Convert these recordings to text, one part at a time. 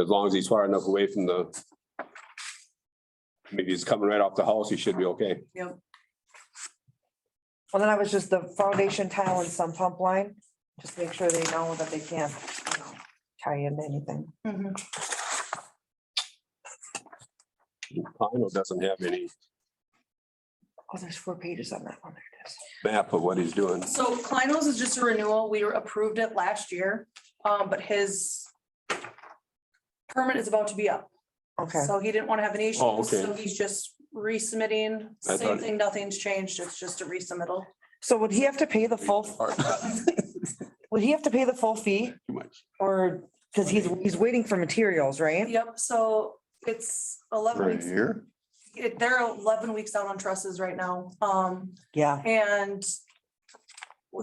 as long as he's far enough away from the. Maybe he's coming right off the house, he should be okay. Well, then I was just the foundation tile and some pump line, just make sure they know that they can't, you know, tie in anything. Pino doesn't have any Oh, there's four pages on that one. There it is. map of what he's doing. So Kleinels is just a renewal. We were approved it last year, um, but his permit is about to be up, Okay, so he didn't want to have any issues. Oh, okay. So he's just resubmitting, I same thought- thing, nothing's changed. It's just a resubmittal. so would he have to pay the full, would he have to pay the full fee Too much. or, because he's, he's waiting for materials, right? Yep, so it's eleven For a weeks. year? it- They're eleven weeks out on trusses right now. Um, Yeah, And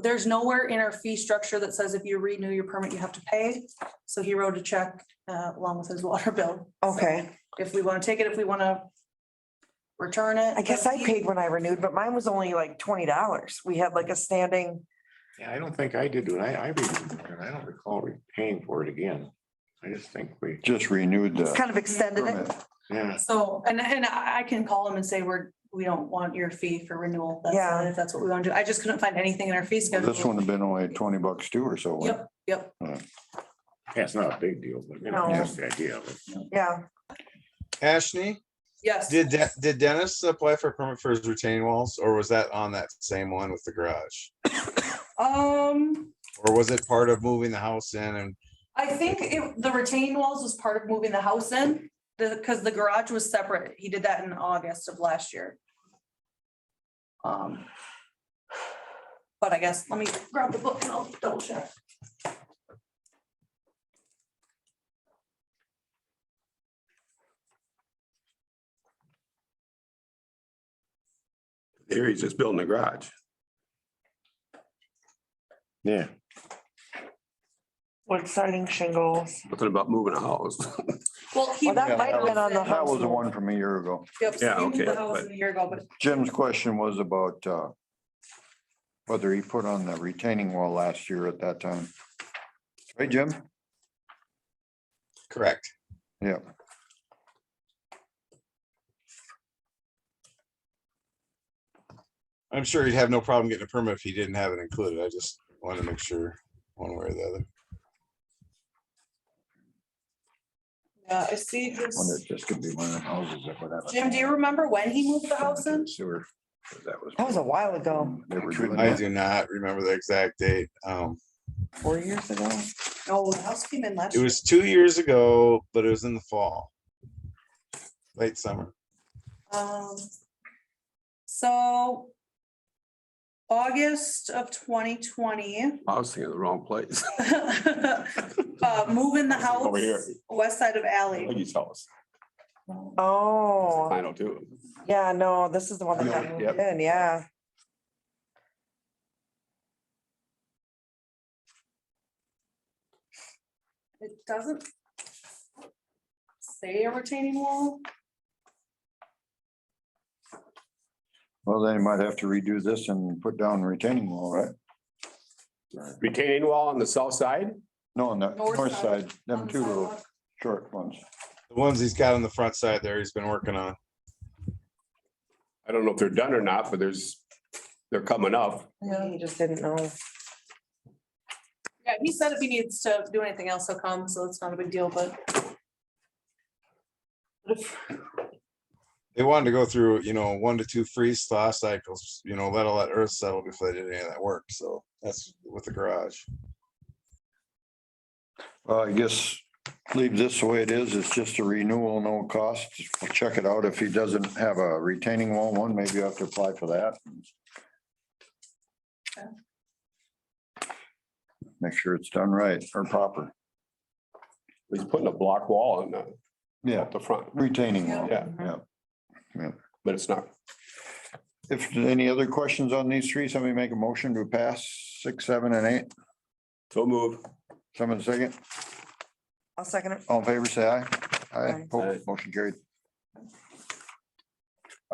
there's nowhere in our fee structure that says if you renew your permit, you have to pay. So he wrote a check uh, along with his water bill. okay. If we want to take it, if we want to return it. I guess I paid when I renewed, but mine was only like twenty dollars. We had like a standing, Yeah, I don't think I did when I, I renewed it, and I don't recall re- paying for it again. I just think we. Just renewed it's kind of extended it. Yeah, So, and, and I I can call him and say, we're, we don't want your fee for renewal. That's- Yeah. If that's what we want to do. I just couldn't find anything in our fee schedule. This one had been only twenty bucks too or so. Yep, yep. yeah, it's not a big deal, but you know, No. just the idea of it. Yeah, Ashley, Yes. did De- did Dennis apply for a permit for his retaining walls, or was that on that same one with the garage? Um, Or was it part of moving the house in and I think it, the retaining walls was part of moving the house in, the, because the garage was separate. He did that in August of last year. Um. But I guess, let me grab the book and I'll double check. Here he's just building a garage. Yeah, wood siding shingles. Nothing about moving a house. Well, he. Well, that might have been on the That house. was the one from a year ago. Yep, so Yeah, he moved okay, the house but- a year ago, but Jim's question was about uh, whether he put on the retaining wall last year at that time. Right, Jim? correct? Yeah. I'm sure he'd have no problem getting a permit if he didn't have it included. I just want to make sure one way or the other. yeah, uh, I see Wonder this. if this could be one of the houses that would have. a- Jim, do you remember when he moved the house in? Sewer. 'cause That was. That was a while ago, They were doing I that. do not remember the exact date. Um, four years ago. No, Oh, the house came in last it year. was two years ago, but it was in the fall. Late summer. Um, so August of twenty twenty, I was thinking of the wrong place. uh, move in the Over here. house, west side of alley. Peggy's house. Oh, Pino too. yeah, no, this is the one that got moved in, yeah. It doesn't say a retaining wall. Well, then you might have to redo this and put down retaining wall, right? Retaining wall on the south side? No, on the North north side. side, them two little short ones. The ones he's got on the front side there, he's been working on. I don't know if they're done or not, but there's, they're coming up. Yeah. He just didn't know. Yeah, he said if he needs to do anything else, he'll come, so it's not a big deal, but. They wanted to go through, you know, one to two freeze thaw cycles, you know, let all that earth settle before they did any of that work. So that's with the garage. Well, I guess leave this the way it is. It's just a renewal, no cost. We'll check it out. If he doesn't have a retaining wall one, maybe you have to apply for that. Make sure it's done right or proper. He's putting a block wall in the, Yeah, up the front. retaining wall. Yeah, Yeah. but it's not. If there's any other questions on these three, somebody make a motion to pass six, seven, and eight. So move. Someone second. I'll second it. All in favor, say aye. Aye. Aye. Opposed, Motion carried.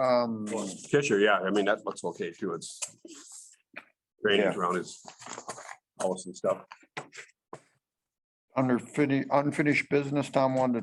Um, Fisher, yeah, I mean, that looks okay too. It's drainage around his house and stuff. under fini- unfinished business, Tom wanted to